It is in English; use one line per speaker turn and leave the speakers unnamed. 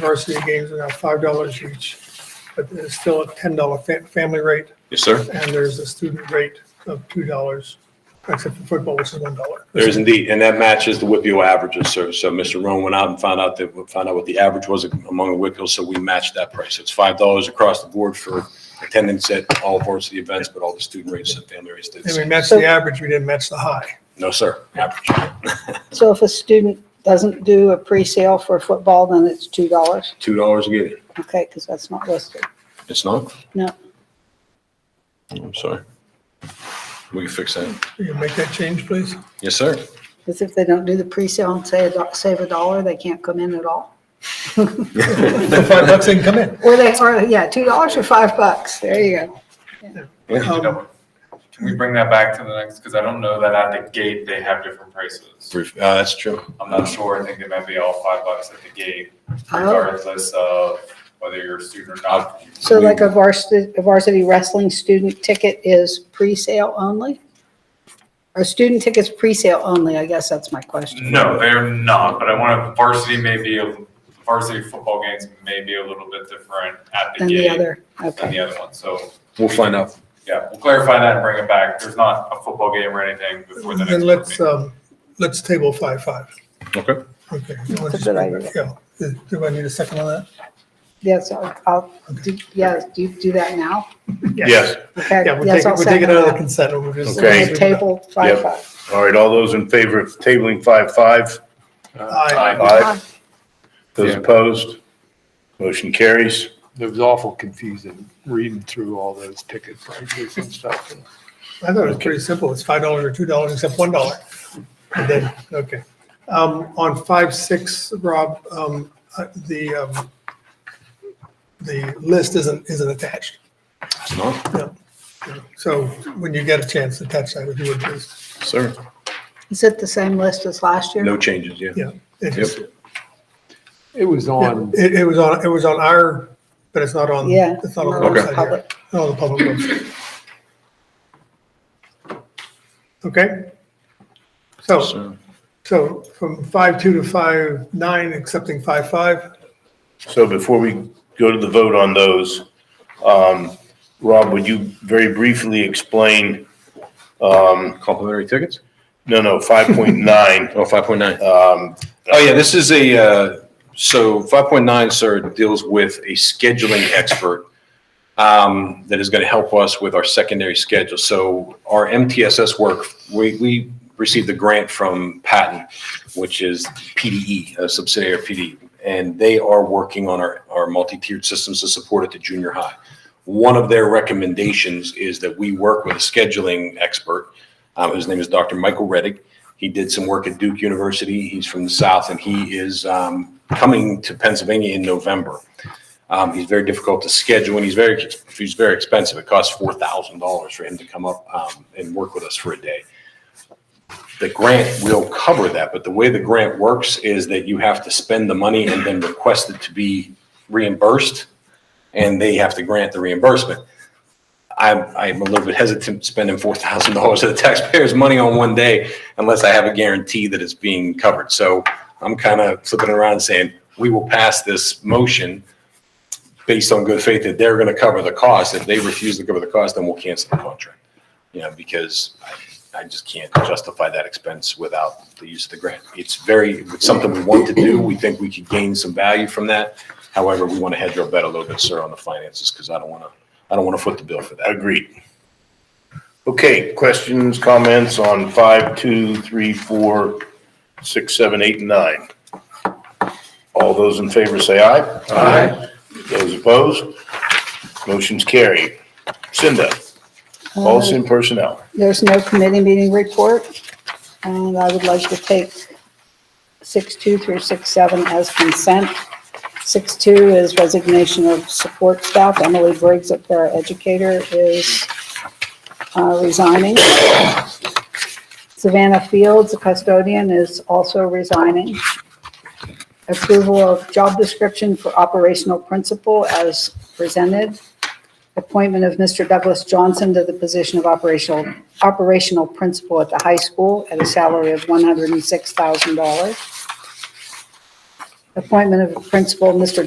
varsity games are now five dollars each, but it's still a ten dollar fa- family rate,
Yes, sir.
and there's a student rate of two dollars, except for football, which is one dollar.
There is indeed, and that matches the Whitfield averages, sir. So Mr. Roan went out and found out that, found out what the average was among the Whitfields, so we matched that price. It's five dollars across the board for attendance at all varsity events, but all the student rates and family rates did the
And we
same.
matched the average, we didn't match the high.
No, sir, average,
So if a student doesn't do a pre-sale for football, then it's two dollars?
two dollars a game.
Okay, because that's not listed.
It's not?
No.
I'm sorry. We can fix that.
Can you make that change, please?
Yes, sir.
Because if they don't do the pre-sale and say, a do- save a dollar, they can't come in at all.
Five bucks didn't come in.
Or they, or, yeah, two dollars or five bucks, there you go.
Um,
Can we bring that back to the next, because I don't know that at the gate they have different prices.
Brief, uh, that's true.
I'm not sure, I think they might be all five bucks at the gate,
Oh.
regardless of whether you're a student or not.
So like a varsity, a varsity wrestling student ticket is pre-sale only? Or student tickets pre-sale only, I guess that's my question.
No, they're not, but I want to, varsity may be, a- varsity football games may be a little bit different at the
Than the
gate
other,
than
okay,
the other one, so,
We'll find out.
yeah, we'll clarify that and bring it back. There's not a football game or anything before the next.
Then
board
let's,
meeting.
um, let's table five, five.
Okay.
Okay.
a good idea.
Yeah. Do I need a second on that?
yes, I'll- I'll, do- yeah, do you do that now?
Yes.
Okay,
Yeah, we'll
yes,
take, it-
I'll
we'll take it
second
out of
that.
the consent. and we'll just-
Okay.
We'll Table five
Yep.
five.
All right, all those in favor of tabling five, five?
Aye.
Aye. Those
Yeah.
opposed? Motion carries.
It was awful confusing reading through all those ticket prices and stuff.
I thought it was pretty simple. It's five dollars or two dollars except one dollar. And then, okay. Um, on five, six, Rob, um, uh, the, um, the list isn't, isn't attached.
It's not?
So when you get a chance, attach that if you would please.
Sir.
Is it the same list as last year?
No changes, yeah.
Yeah. It
Yep.
just-
It was on,
It, it was on, it was on our, but it's not on,
Yeah.
it's not on the
not
website here.
public.
Not on the public website. Okay? So
Sir.
So from five two to five nine, accepting five five.
So before we go to the vote on those, um, Rob, would you very briefly explain, um,
Complimentary tickets?
no, no, 5.9?
Oh, five point nine.
um,
Oh, yeah, this is a, uh, so 5.9, sir, deals with a scheduling expert um, that is going to help us with our secondary schedule. So our MTSS work, we, we received a grant from Patton, which is PDE, a subsidiary of PDE, and they are working on our, our multi-tiered systems to support at the junior high. One of their recommendations is that we work with a scheduling expert. Um, His name is Dr. Michael Reddick. He did some work at Duke University. He's from the South, and he is um, coming to Pennsylvania in November. Um, he's very difficult to schedule, and he's very he's very expensive. It costs four thousand dollars for him to come up um, and work with us for a day. The grant will cover that, but the way the grant works is that you have to spend the money and then request it to be reimbursed, and they have to grant the reimbursement. I'm, I'm a little bit hesitant spending four thousand dollars of the taxpayers' money on one day unless I have a guarantee that it's being covered. So I'm kind of flipping around and saying, we will pass this motion based on good faith that they're going to cover the cost. If they refuse to cover the cost, then we'll cancel the contract. You know, because I, I just can't justify that expense without the use of the grant. It's very, it's something we want to do. We think we could gain some value from that. However, we want to hedge our bet a little bit, sir, on the finances because I don't want to, I don't want to foot the bill for that.
Agreed. Okay, questions, comments on five, two, three, four, six, seven, eight, and nine? All those in favor say aye. Aye. Those opposed? Motion's carried. Cinda, policy and personnel.
There's no committee meeting report, and I would like to take six two through six seven as consent. Six two is resignation of support staff. Emily Briggs, a para educator, is uh, resigning. Savannah Fields, a custodian, is also resigning. Approval of job description for operational principal as presented appointment of Mr. Douglas Johnson to the position of operational, operational principal at the high school at a salary of $106,000. Appointment of principal, Mr.